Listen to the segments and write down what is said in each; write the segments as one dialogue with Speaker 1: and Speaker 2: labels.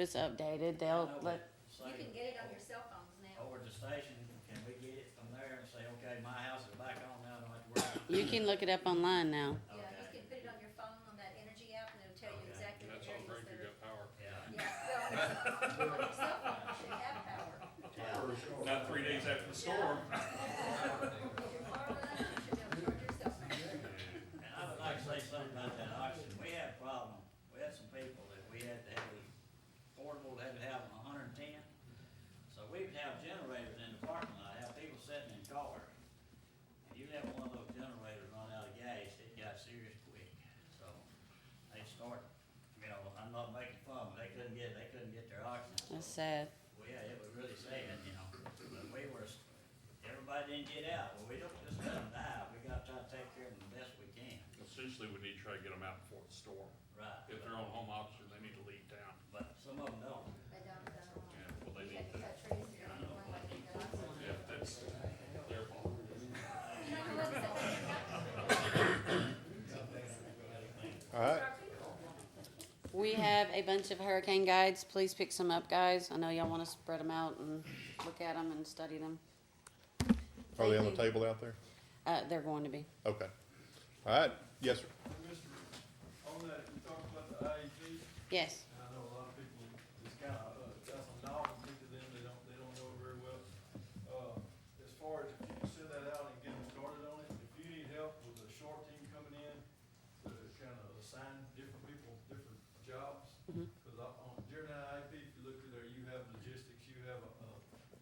Speaker 1: it's updated,
Speaker 2: I
Speaker 1: they'll
Speaker 2: know,
Speaker 1: let,
Speaker 2: but
Speaker 3: You
Speaker 2: say
Speaker 3: can get it on your cell phones now.
Speaker 2: Over at the station, can we get it from there and say, okay, my house is back on now, I don't have to worry about it?
Speaker 1: you can look it up online now.
Speaker 3: Yeah, you
Speaker 2: Okay.
Speaker 3: can put it on your phone on that energy app and it'll tell you
Speaker 2: Okay.
Speaker 3: exactly
Speaker 4: That's
Speaker 3: the
Speaker 4: on
Speaker 3: areas
Speaker 4: Greenview
Speaker 3: that are.
Speaker 4: got power.
Speaker 2: Yeah.
Speaker 3: Yeah, well, on your cell phone, you should have power.
Speaker 2: Yeah.
Speaker 4: Not three days after the storm.
Speaker 3: If you're far run, you should be able to charge your cell phone.
Speaker 2: And I would like to say something about that auction. We had a problem. We had some people that we had to have the portable, had to have a hundred and ten. So we would have generators in the parking lot, have people sitting in cars. And you let one of those generators run out of gas, it got serious quick. So they start, you know, I'm not making fun, but they couldn't get, they couldn't get their oxygen.
Speaker 1: That's sad.
Speaker 2: Well, yeah, it was really sad, you know, but we were, everybody didn't get out, well, we don't just let them die, we gotta try to take care of them the best we can.
Speaker 4: Essentially, we need to try to get them out before the storm.
Speaker 2: Right.
Speaker 4: If they're on home option, they need to leave town.
Speaker 2: But some of them don't.
Speaker 3: They don't, they don't want.
Speaker 4: Yeah, well, they
Speaker 3: You
Speaker 4: need
Speaker 3: had to
Speaker 4: to,
Speaker 3: cut trees to get one like you got on one.
Speaker 4: yeah, that's their fault.
Speaker 3: You know, the ones that they
Speaker 5: All right,
Speaker 3: our people.
Speaker 1: We
Speaker 5: Hmm.
Speaker 1: have a bunch of hurricane guides, please pick some up, guys, I know y'all wanna spread them out and look at them and study them.
Speaker 5: are they on the
Speaker 1: Thank you.
Speaker 5: table out there?
Speaker 1: Uh, they're going to be.
Speaker 5: Okay. All right, yes, sir.
Speaker 6: Mr. On that, you talked about the E IEP,
Speaker 1: Yes,
Speaker 6: and I know a lot of people, it's kind of, uh, that's a novelty to them, they don't, they don't know it very well. Uh, as far as if you can send that out and get them started on it, if you need help with a short team coming in, to kind of assign different people, different jobs,
Speaker 1: Mhm.
Speaker 6: because on, during that IEP, if you look at there, you have logistics, you have, uh,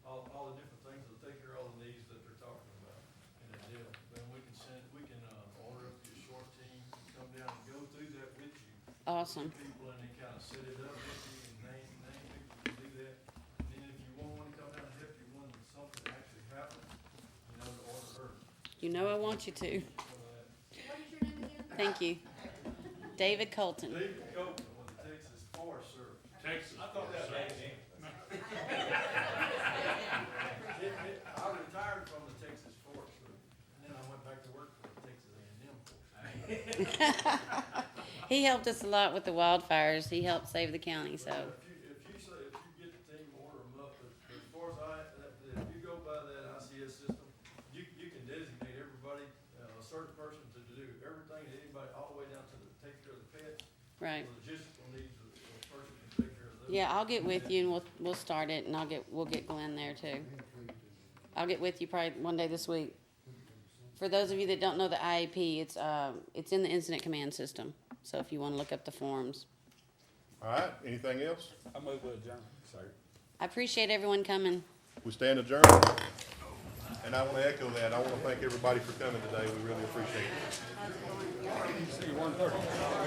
Speaker 6: all, all the different things, that take care of all the needs that they're talking about in a deal. Then we can send, we can, uh, order up your short team, and come down and go through that with you,
Speaker 1: awesome,
Speaker 6: people and they kind of set it up with you and name, name people to do that. And then if you want one to come down and help you, when something actually happens, you know, to order her,
Speaker 1: you know I want you to,
Speaker 6: so that.
Speaker 3: What is your name again?
Speaker 1: thank you. David Colton.
Speaker 6: David Copeland with the Texas Forest Service.
Speaker 4: Texas.
Speaker 6: I thought that was
Speaker 4: Texas.
Speaker 6: it. it- I retired from the Texas Forest Service, and then I went back to work for the Texas A and M Forest.
Speaker 1: He helped us a lot with the wildfires. He helped save the county, so.
Speaker 6: But If you, if you say, if you get the team, order them up, but but as far as I, that- that if you go by that ICS system, you, you can designate everybody, uh, a certain person to do everything, to anybody, all the way down to the, take care of the pets, the
Speaker 1: Right.
Speaker 6: logistical needs of the of the person to take care of those.
Speaker 1: Yeah, I'll get with you and we'll, we'll start it and I'll get, we'll get Glenn there too. I'll get with you probably one day this week. For those of you that don't know the IEP, it's, uh, it's in the incident command system. So if you wanna look up the forms.
Speaker 5: All right, anything else?
Speaker 7: I move with John, sorry.
Speaker 1: I appreciate everyone coming.
Speaker 5: We stand adjourned. And I want to echo that. I want to thank everybody for coming today. We really appreciate it.
Speaker 7: See, one thirty.